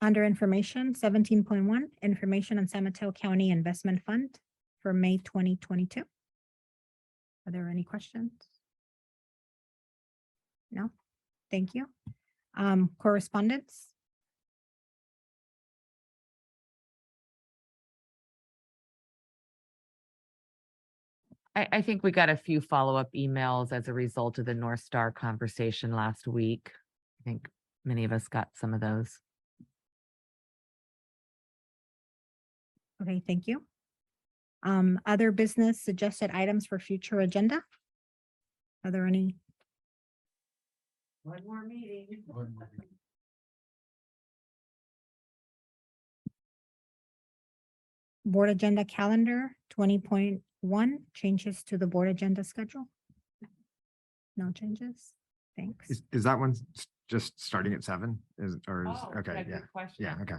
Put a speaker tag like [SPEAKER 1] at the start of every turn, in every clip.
[SPEAKER 1] Under information, seventeen point one, information on San Mateo County Investment Fund for May twenty twenty-two. Are there any questions? No, thank you. Um, correspondence?
[SPEAKER 2] I, I think we got a few follow-up emails as a result of the North Star conversation last week. I think many of us got some of those.
[SPEAKER 1] Okay, thank you. Um, other business suggested items for future agenda? Are there any?
[SPEAKER 3] One more meeting.
[SPEAKER 1] Board Agenda Calendar twenty point one, changes to the board agenda schedule? No changes? Thanks.
[SPEAKER 4] Is, is that one s- just starting at seven? Is, or is,
[SPEAKER 2] Oh, yeah,
[SPEAKER 4] okay, yeah,
[SPEAKER 2] good question.
[SPEAKER 4] yeah, okay.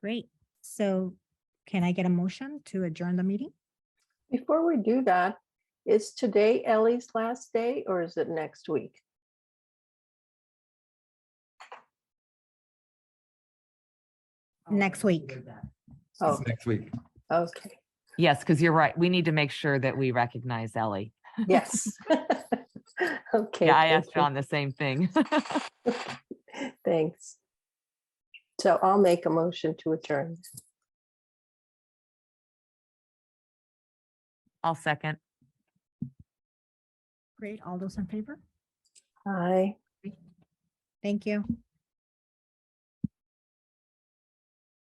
[SPEAKER 1] Great. So can I get a motion to adjourn the meeting?
[SPEAKER 5] Before we do that, is today Ellie's last day or is it next week?
[SPEAKER 1] Next week.
[SPEAKER 5] Oh,
[SPEAKER 4] Next week.
[SPEAKER 5] okay,
[SPEAKER 2] Yes, because you're right. We need to make sure that we recognize Ellie.
[SPEAKER 5] yes. Okay.
[SPEAKER 2] Yeah, I
[SPEAKER 5] thank
[SPEAKER 2] asked
[SPEAKER 5] you.
[SPEAKER 2] John the same thing.
[SPEAKER 5] Thanks. So I'll make a motion to adjourn.
[SPEAKER 2] I'll second.
[SPEAKER 1] Great. All those in favor?
[SPEAKER 5] Aye.
[SPEAKER 1] Thank you.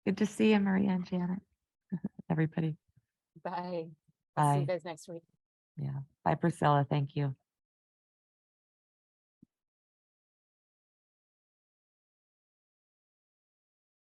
[SPEAKER 2] Good to see you, Maria and Janet. Everybody.
[SPEAKER 3] Bye. I'll
[SPEAKER 2] Bye.
[SPEAKER 3] See you guys next week.
[SPEAKER 2] Bye, Priscilla. Thank you.